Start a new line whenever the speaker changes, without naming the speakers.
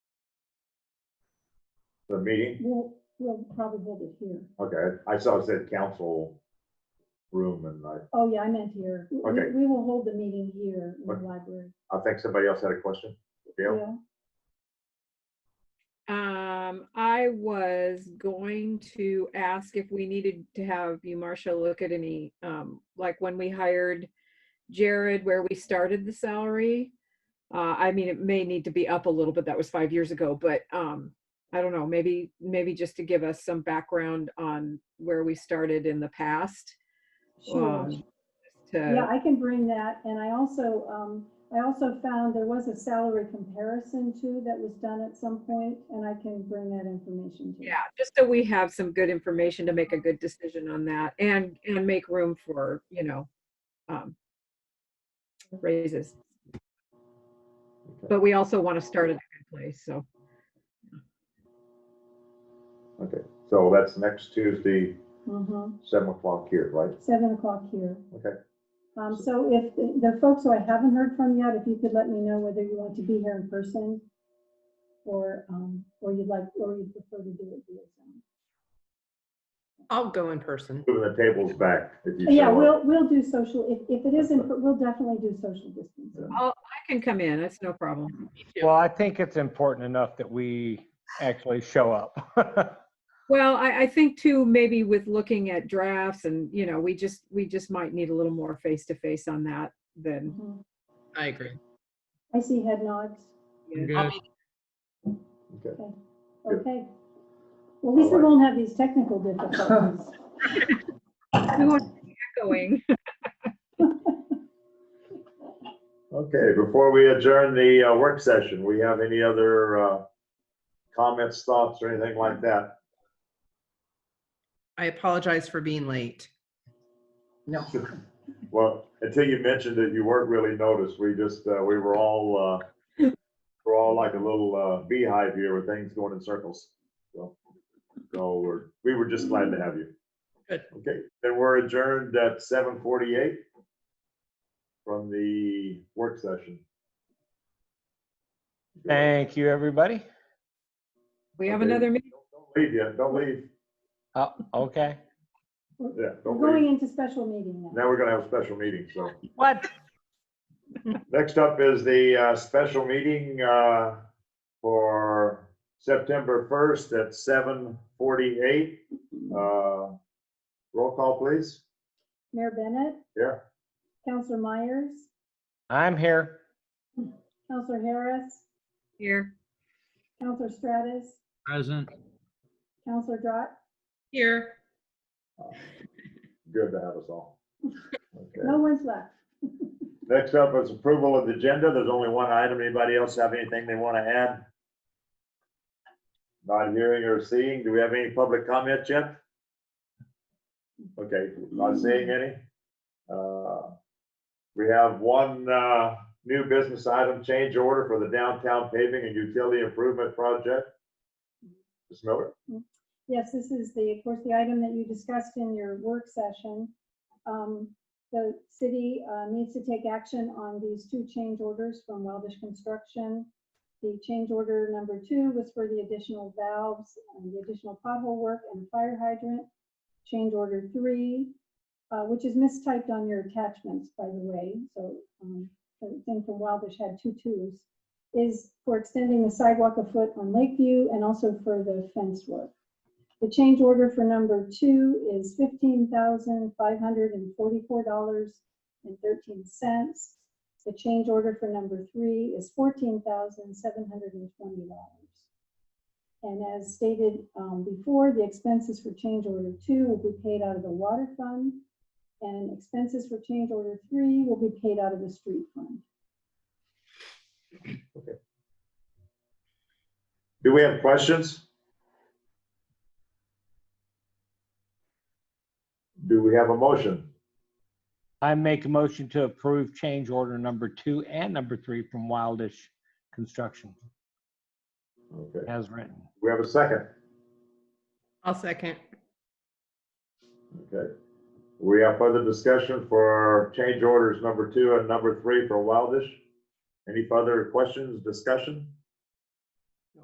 the meeting?
We'll, we'll probably hold it here.
Okay, I saw it said council room and I,
Oh, yeah, I meant here. We-
Okay.
We will hold the meeting here in the
Okay.
library.
I think somebody else had a question. Dale?
Well,
Um, I was going to ask if we needed to have you, Marcia, look at any, um, like when we hired Jared, where we started the salary. Uh, I mean, it may need to be up a little bit. That was five years ago, but, um, I don't know, maybe, maybe just to give us some background on where we started in the past.
Sure.
um,
Yeah,
To,
I can bring that. And I also, um, I also found there was a salary comparison too that was done at some point, and I can bring that information to you.
yeah, just so we have some good information to make a good decision on that and, and make room for, you know, um, raises.
Okay.
But we also want to start at a good place, so.
Okay, so that's next Tuesday,
Mhm.
seven o'clock here, right?
Seven o'clock here.
Okay,
Um, so if the the folks who I haven't heard from yet, if you could let me know whether you want to be here in person or, um, or you'd like, or you'd prefer to do it via Zoom.
I'll go in person.
moving the tables back if you
Yeah,
show up.
we'll, we'll do social, if, if it isn't, we'll definitely do social distancing.
I'll, I can come in, that's no problem.
Well, I think it's important enough that we actually show up.
Well, I, I think too, maybe with looking at drafts and, you know, we just, we just might need a little more face-to-face on that than.
Mhm.
I agree.
I see head nods.
Yeah.
Good.
Okay. Good.
Okay. Well, at least we
Alright.
won't have these technical difficulties.
We won't be echoing.
Okay, before we adjourn the uh, work session, we have any other uh, comments, thoughts, or anything like that?
I apologize for being late. No.
Well, until you mentioned that you weren't really noticed, we just, uh, we were all, uh, we're all like a little uh, beehive here with things going in circles. So so we're, we were just glad to have you.
Good.
Okay, then we're adjourned at seven forty-eight from the work session.
Thank you, everybody.
We have
Okay.
another meeting.
Don't Leave yet, don't leave.
Oh, okay.
Yeah,
We're
don't leave.
going into special meeting now.
Now we're gonna have a special meeting, so.
What?
Next up is the uh, special meeting uh, for September 1st at 7:48. Uh, Roll call, please.
Mayor Bennett,
Here.
Counselor Myers,
I'm here.
Counselor Harris,
Here,
Counselor Stratus,
Present.
Counselor Drott,
Here.
Good to have us all. Okay.
no one's left.
Next up is approval of the agenda. There's only one item. Anybody else have anything they want to add? Not hearing or seeing. Do we have any public comments yet? Okay, not seeing any. Uh, We have one uh, new business item, change order for the downtown paving and utility improvement project. Ms. Miller?
Yes, this is the, of course, the item that you discussed in your work session. Um, The city uh, needs to take action on these two change orders from Wildish Construction. The change order number two was for the additional valves and the additional pothole work and fire hydrant. Change order three, uh, which is mistyped on your attachments, by the way, so um, the thing from Wildish had two twos, is for extending the sidewalk a foot on Lakeview and also for the fence work. The change order for number two is fifteen thousand five hundred and forty-four dollars and thirteen cents. The change order for number three is fourteen thousand seven hundred and twenty dollars. And as stated um, before, the expenses for change order two will be paid out of the water fund. And expenses for change order three will be paid out of the street fund.
Do we have questions? Do we have a motion?
I make a motion to approve change order number two and number three from Wildish Construction
Okay,
as written.
we have a second.
I'll second.
Okay. We have further discussion for change orders number two and number three for Wildish. Any further questions, discussion?